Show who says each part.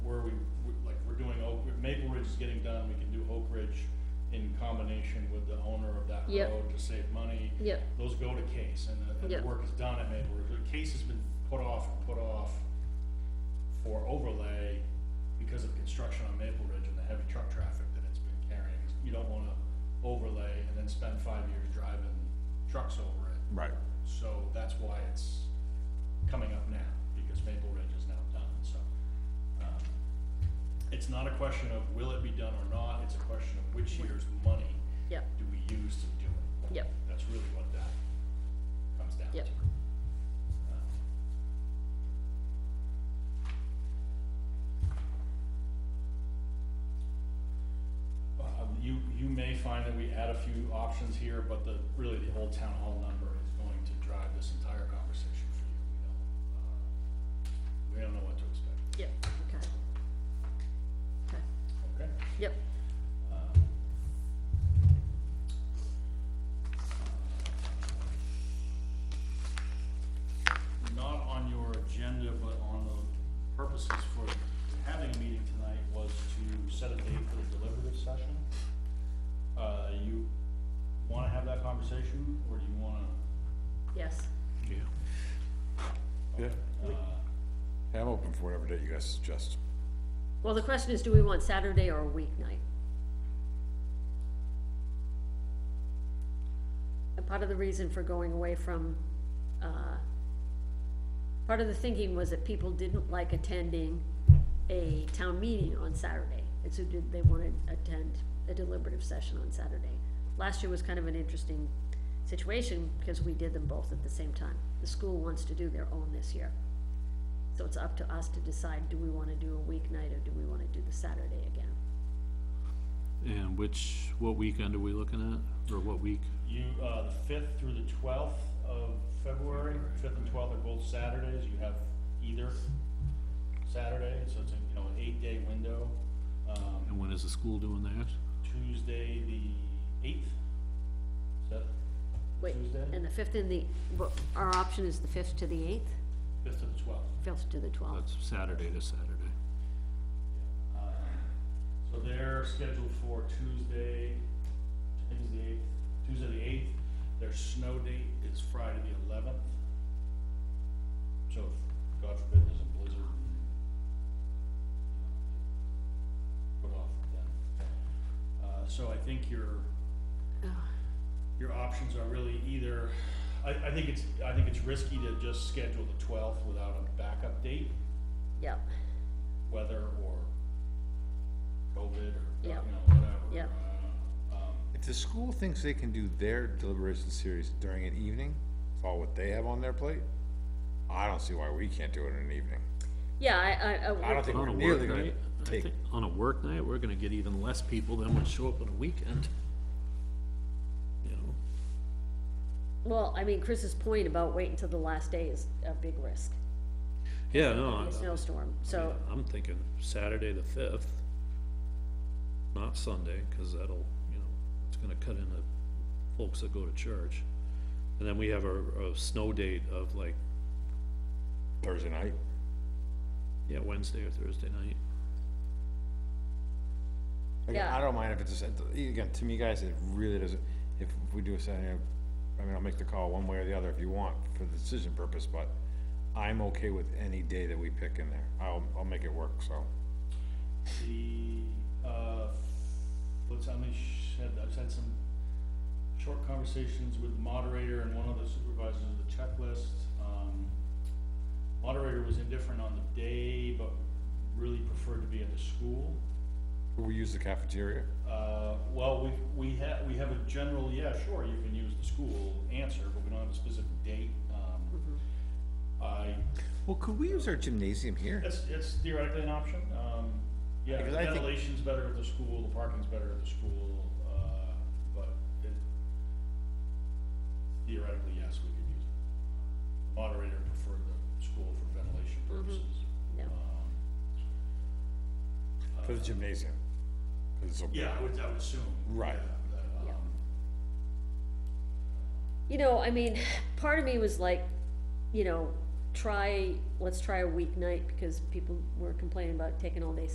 Speaker 1: Ridge is getting done, we can do Oak Ridge in combination with the owner of that
Speaker 2: Yep.
Speaker 1: road to save money.
Speaker 2: Yep.
Speaker 1: Those go to case, and the, and
Speaker 2: Yep.
Speaker 1: the work is done, and they, the case has been put off and put off for overlay because of construction on Maple Ridge and the heavy truck traffic that it's been carrying. You don't wanna overlay and then spend five years driving trucks over it.
Speaker 3: Right.
Speaker 1: So that's why it's coming up now, because Maple Ridge is now done, so. um, It's not a question of will it be done or not, it's a question of which year's money
Speaker 2: Yep,
Speaker 1: do we use to do it.
Speaker 2: yep,
Speaker 1: That's really what that comes down to.
Speaker 2: Yep.
Speaker 1: Uh, um, You, you may find that we add a few options here, but the, really the whole town hall number is going to drive this entire conversation for you. We don't, uh, we don't know what to expect,
Speaker 2: yep, okay. Okay,
Speaker 1: okay?
Speaker 2: yep,
Speaker 1: Um, Not on your agenda, but on the purposes for having a meeting tonight was to set a date for the deliberative session. Uh, you wanna have that conversation, or do you wanna,
Speaker 2: yes,
Speaker 3: Yeah. Yeah,
Speaker 1: uh,
Speaker 3: I'm open for whatever date you guys suggest.
Speaker 2: well, the question is, do we want Saturday or a weeknight? And part of the reason for going away from, uh, part of the thinking was that people didn't like attending a town meeting on Saturday, and so did, they wanted to attend a deliberative session on Saturday. Last year was kind of an interesting situation, because we did them both at the same time. The school wants to do their own this year. So it's up to us to decide, do we wanna do a weeknight, or do we wanna do the Saturday again?
Speaker 4: And which, what weekend are we looking at, or what week?
Speaker 1: You, uh, the fifth through the twelfth of February, fifth and twelfth are both Saturdays, you have either Saturday, so it's, a, you know, an eight-day window. Um,
Speaker 4: And when is the school doing that?
Speaker 1: Tuesday, the eighth, is that
Speaker 2: Wait,
Speaker 1: Tuesday?
Speaker 2: and the fifth and the, but our option is the fifth to the eighth,
Speaker 1: Fifth to the twelfth.
Speaker 2: fifth to the twelfth.
Speaker 4: That's Saturday to Saturday.
Speaker 1: So they're scheduled for Tuesday, today's the eighth, Tuesday the eighth, their snow date is Friday the eleventh. So if, God forbid, there's a blizzard and, you know, put off then. Uh, so I think your, your options are really either, I, I think it's, I think it's risky to just schedule the twelfth without a backup date
Speaker 2: Yep,
Speaker 1: weather or COVID or, you know,
Speaker 2: Yep.
Speaker 1: whatever.
Speaker 2: Yep.
Speaker 1: uh, um,
Speaker 3: If the school thinks they can do their deliberation series during an evening, it's all what they have on their plate, I don't see why we can't do it in an evening.
Speaker 2: yeah, I, I, I.
Speaker 3: I don't think
Speaker 4: On
Speaker 3: we're
Speaker 4: a work
Speaker 3: nearly gonna
Speaker 4: night, I
Speaker 3: take,
Speaker 4: think, on a work night, we're gonna get even less people than would show up on a weekend. You know,
Speaker 2: Well, I mean, Chris's point about waiting till the last day is a big risk,
Speaker 4: yeah, no,
Speaker 2: a
Speaker 4: I-
Speaker 2: snowstorm, so,
Speaker 4: I'm thinking Saturday the fifth, not Sunday, cause that'll, you know, it's gonna cut into folks that go to church. And then we have a, a snow date of like,
Speaker 3: Thursday night,
Speaker 4: yeah, Wednesday or Thursday night.
Speaker 3: again,
Speaker 2: Yeah.
Speaker 3: I don't mind if it's, a Sat- again, to me, guys, it really doesn't, if we do a Saturday, I mean, I'll make the call one way or the other if you want, for the decision purpose, but I'm okay with any day that we pick in there, I'll, I'll make it work, so.
Speaker 1: The, uh, let's, I mean, sh- had, I've had some short conversations with the moderator and one of the supervisors of the checklist. Um, Moderator was indifferent on the day, but really preferred to be at the school.
Speaker 3: We use the cafeteria,
Speaker 1: Uh, well, we, we have, we have a general, yeah, sure, you can use the school answer, but we don't have a specific date. Um, I
Speaker 3: Well, could we use our gymnasium here?
Speaker 1: It's, it's theoretically an option, um, yeah,
Speaker 3: Because I think-
Speaker 1: ventilation's better at the school, the parking's better at the school, uh, but it, theoretically, yes, we could use it. Moderator preferred the school for ventilation purposes.
Speaker 2: yeah.
Speaker 1: Um,
Speaker 3: For the gymnasium. 'Cause it's open.
Speaker 1: Yeah, I would, I would assume.
Speaker 3: Right.
Speaker 1: yeah, that,
Speaker 2: Yeah.
Speaker 1: um,
Speaker 2: You know, I mean, part of me was like, you know, try, let's try a weeknight, because people were complaining about taking all day